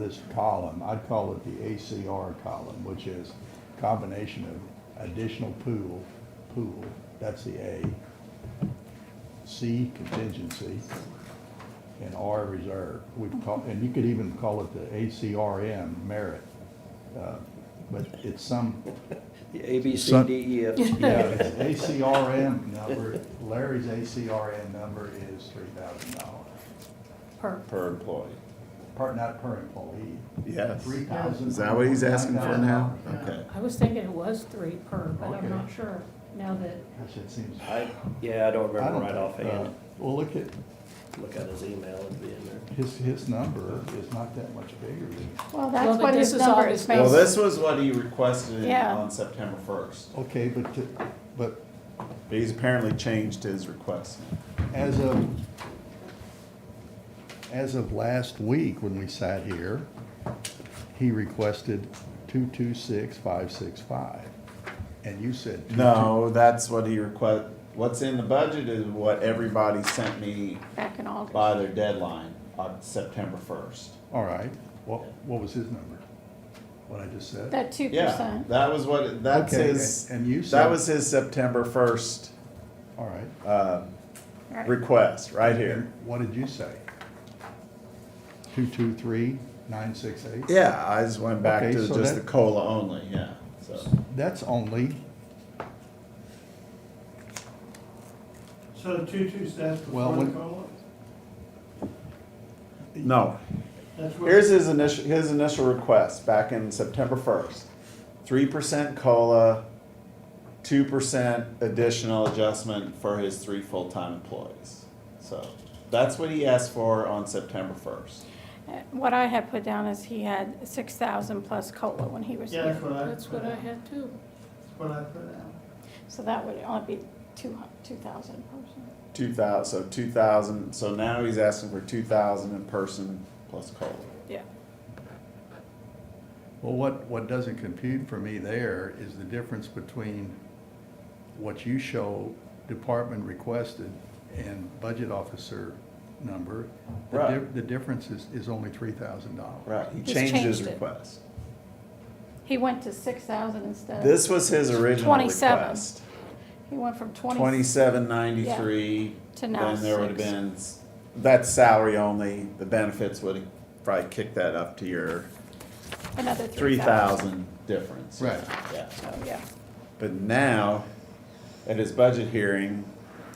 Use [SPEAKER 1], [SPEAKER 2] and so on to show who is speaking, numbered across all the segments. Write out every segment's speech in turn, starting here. [SPEAKER 1] this column, I'd call it the ACR column, which is combination of additional pool, pool, that's the A, C contingency, and R reserve. We call, and you could even call it the ACRM merit, uh, but it's some,
[SPEAKER 2] A, B, C,
[SPEAKER 3] Son-
[SPEAKER 2] D, E, F.
[SPEAKER 1] yeah, it's ACRM number, Larry's ACRM number is three thousand dollars.
[SPEAKER 4] per,
[SPEAKER 3] per employee.
[SPEAKER 1] Per, not per employee.
[SPEAKER 3] Yes.
[SPEAKER 1] Three thousand.
[SPEAKER 3] Is that what he's asking for now? Okay.
[SPEAKER 4] I was thinking it was three per, but
[SPEAKER 3] Okay.
[SPEAKER 4] I'm not sure now that,
[SPEAKER 1] Gosh, it seems.
[SPEAKER 2] I, yeah, I don't
[SPEAKER 1] I
[SPEAKER 2] remember
[SPEAKER 1] don't
[SPEAKER 2] right
[SPEAKER 1] think,
[SPEAKER 2] offhand.
[SPEAKER 1] uh, Well, look at,
[SPEAKER 5] uh,
[SPEAKER 2] Look at his email, it'd be in there.
[SPEAKER 1] his, his number is not that much bigger than,
[SPEAKER 6] Well,
[SPEAKER 4] Well,
[SPEAKER 6] that's
[SPEAKER 4] but
[SPEAKER 6] what
[SPEAKER 4] this
[SPEAKER 6] his
[SPEAKER 4] is all
[SPEAKER 6] number
[SPEAKER 4] his
[SPEAKER 6] is
[SPEAKER 3] Well,
[SPEAKER 4] base.
[SPEAKER 6] based.
[SPEAKER 3] this was what he requested
[SPEAKER 6] Yeah.
[SPEAKER 3] on September first.
[SPEAKER 1] okay, but, to- but
[SPEAKER 3] He's apparently changed his request.
[SPEAKER 1] as of, as of last week when we sat here, he requested two-two-six-five-six-five, and you said. two-
[SPEAKER 3] No, that's what he request, what's in the budget is what everybody sent me
[SPEAKER 6] back in August.
[SPEAKER 3] by their deadline on September first.
[SPEAKER 1] All right, what, what was his number? What I just said?
[SPEAKER 6] That two
[SPEAKER 3] Yeah,
[SPEAKER 6] percent.
[SPEAKER 3] that was what, that's
[SPEAKER 1] Okay,
[SPEAKER 3] his,
[SPEAKER 1] and- and you
[SPEAKER 3] that
[SPEAKER 1] said-
[SPEAKER 3] was his September first,
[SPEAKER 1] All right.
[SPEAKER 3] uh, request, right here.
[SPEAKER 1] And What did you say? Two, two, three, nine, six, eight?
[SPEAKER 3] Yeah, I just went back
[SPEAKER 1] Okay,
[SPEAKER 3] to
[SPEAKER 1] so
[SPEAKER 3] just the
[SPEAKER 1] that-
[SPEAKER 3] cola only. Yeah. So
[SPEAKER 1] That's only,
[SPEAKER 7] So two, two, that's
[SPEAKER 1] Well,
[SPEAKER 7] before the
[SPEAKER 1] when-
[SPEAKER 7] COLA?
[SPEAKER 3] no,
[SPEAKER 7] That's what-
[SPEAKER 3] here's his initial his initial request back in September first, three percent cola, two percent additional adjustment for his three full time employees. So that's what he asked for on September first.
[SPEAKER 6] What I had put down is he had six thousand plus COLA when he was
[SPEAKER 7] Yeah, that's
[SPEAKER 6] here.
[SPEAKER 3] Uh,
[SPEAKER 7] what I.
[SPEAKER 4] that's what I had too.
[SPEAKER 7] That's what I put out.
[SPEAKER 6] So that would only be two hu- two thousand person.
[SPEAKER 3] Two thousand, so two thousand. So now he's asking for two thousand in person plus cola.
[SPEAKER 6] Yeah.
[SPEAKER 1] well, what, what doesn't compute for me there is the difference between what you show department requested and budget officer number. The di-
[SPEAKER 3] Right.
[SPEAKER 1] The difference is, is only three thousand dollars.
[SPEAKER 3] Right. He
[SPEAKER 6] He's
[SPEAKER 3] changed, his
[SPEAKER 6] changed it.
[SPEAKER 3] request.
[SPEAKER 6] He went to six thousand instead.
[SPEAKER 3] This was his original
[SPEAKER 6] 27.
[SPEAKER 3] request.
[SPEAKER 6] He went from twenty,
[SPEAKER 3] Twenty-seven ninety-three.
[SPEAKER 6] To now
[SPEAKER 3] Then there would have
[SPEAKER 6] six.
[SPEAKER 3] been, s- that's salary only, the benefits would have probably kicked that up to your
[SPEAKER 6] another
[SPEAKER 3] three
[SPEAKER 6] three thousand.
[SPEAKER 3] thousand difference.
[SPEAKER 1] Right.
[SPEAKER 3] Yeah,
[SPEAKER 6] So, yeah.
[SPEAKER 3] but now, at his budget hearing,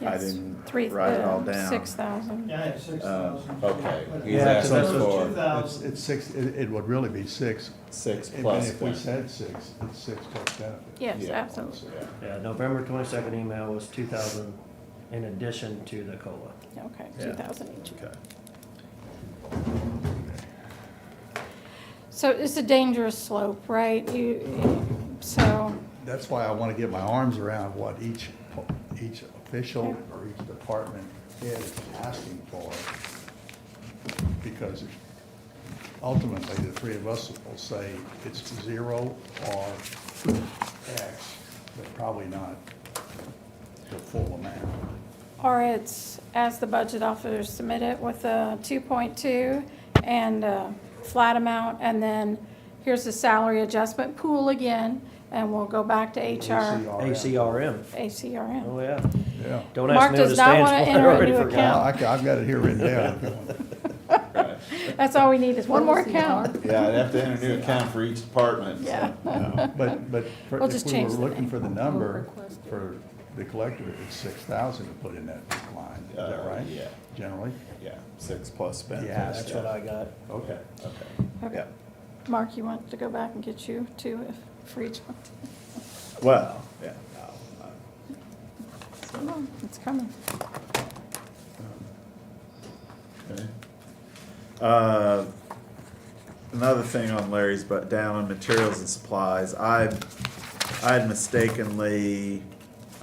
[SPEAKER 3] I
[SPEAKER 6] Yes.
[SPEAKER 3] didn't
[SPEAKER 6] Three, uh,
[SPEAKER 3] write it all down.
[SPEAKER 6] six thousand.
[SPEAKER 7] Yeah, I had six
[SPEAKER 3] Uh,
[SPEAKER 7] thousand.
[SPEAKER 3] okay. He's
[SPEAKER 1] Yeah, asking
[SPEAKER 3] for-
[SPEAKER 7] Two
[SPEAKER 1] It's,
[SPEAKER 7] thousand.
[SPEAKER 1] it's six, it, it would really be six.
[SPEAKER 3] Six
[SPEAKER 1] Even
[SPEAKER 3] plus
[SPEAKER 1] If we
[SPEAKER 3] benefits.
[SPEAKER 1] said six, it's six plus benefit.
[SPEAKER 6] Yes,
[SPEAKER 3] Yeah.
[SPEAKER 6] absolutely.
[SPEAKER 3] Yeah.
[SPEAKER 5] Yeah, November twenty-second email was two thousand in addition to the COLA.
[SPEAKER 6] Okay,
[SPEAKER 3] Yeah.
[SPEAKER 6] two thousand each.
[SPEAKER 3] Okay.
[SPEAKER 6] So it's a dangerous slope, right? You, so,
[SPEAKER 1] That's why I want to get my arms around what each, each official or each department head is asking for. Because ultimately, the three of us will say it's zero or X, but probably not the full amount.
[SPEAKER 6] or it's as the budget officer submitted with a two point two and a flat amount, and then here's the salary adjustment pool again, and we'll go back to HR,
[SPEAKER 1] ACRM.
[SPEAKER 5] ACRM,
[SPEAKER 6] ACRM.
[SPEAKER 5] oh yeah.
[SPEAKER 1] Yeah.
[SPEAKER 5] Don't
[SPEAKER 6] Mark
[SPEAKER 5] ask me what
[SPEAKER 6] does
[SPEAKER 5] it
[SPEAKER 6] not
[SPEAKER 5] stands
[SPEAKER 6] wanna
[SPEAKER 5] for, I
[SPEAKER 6] enter a
[SPEAKER 5] already
[SPEAKER 6] new
[SPEAKER 1] Well,
[SPEAKER 5] forgot.
[SPEAKER 1] I ca- I've got it here written down.
[SPEAKER 6] That's all we need is one more
[SPEAKER 4] What was the
[SPEAKER 6] account.
[SPEAKER 3] Yeah, I'd have to enter a new account for each department. so,
[SPEAKER 6] Yeah.
[SPEAKER 3] no.
[SPEAKER 1] But, but for-
[SPEAKER 6] We'll
[SPEAKER 1] if
[SPEAKER 6] just
[SPEAKER 1] we were
[SPEAKER 6] change the
[SPEAKER 1] looking
[SPEAKER 6] name.
[SPEAKER 1] for the number
[SPEAKER 4] request it.
[SPEAKER 1] for the collector, it's six thousand to put in that line, is that
[SPEAKER 3] Uh,
[SPEAKER 1] right?
[SPEAKER 3] yeah.
[SPEAKER 1] Generally?
[SPEAKER 3] Yeah, six plus
[SPEAKER 1] Yeah,
[SPEAKER 3] benefits.
[SPEAKER 5] That's what I got.
[SPEAKER 1] Okay.
[SPEAKER 3] Okay.
[SPEAKER 6] Okay.
[SPEAKER 3] Yeah.
[SPEAKER 6] Mark, you want to go back and get you two if- for each one?
[SPEAKER 3] Well, yeah, no, I-
[SPEAKER 6] Come on, It's coming.
[SPEAKER 3] Okay. Uh, Another thing on Larry's, but down on materials and supplies, I, I had mistakenly,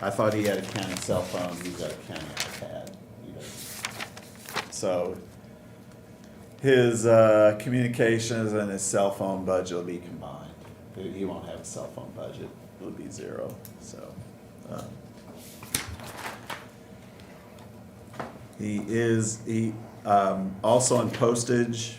[SPEAKER 3] I thought he had a county cell phone, he's got a county iPad. he doesn't. So his uh, communications and his cell phone budget will be combined. He he won't have a cell phone budget, it'll be zero, so. um, He is, he, um, also on postage,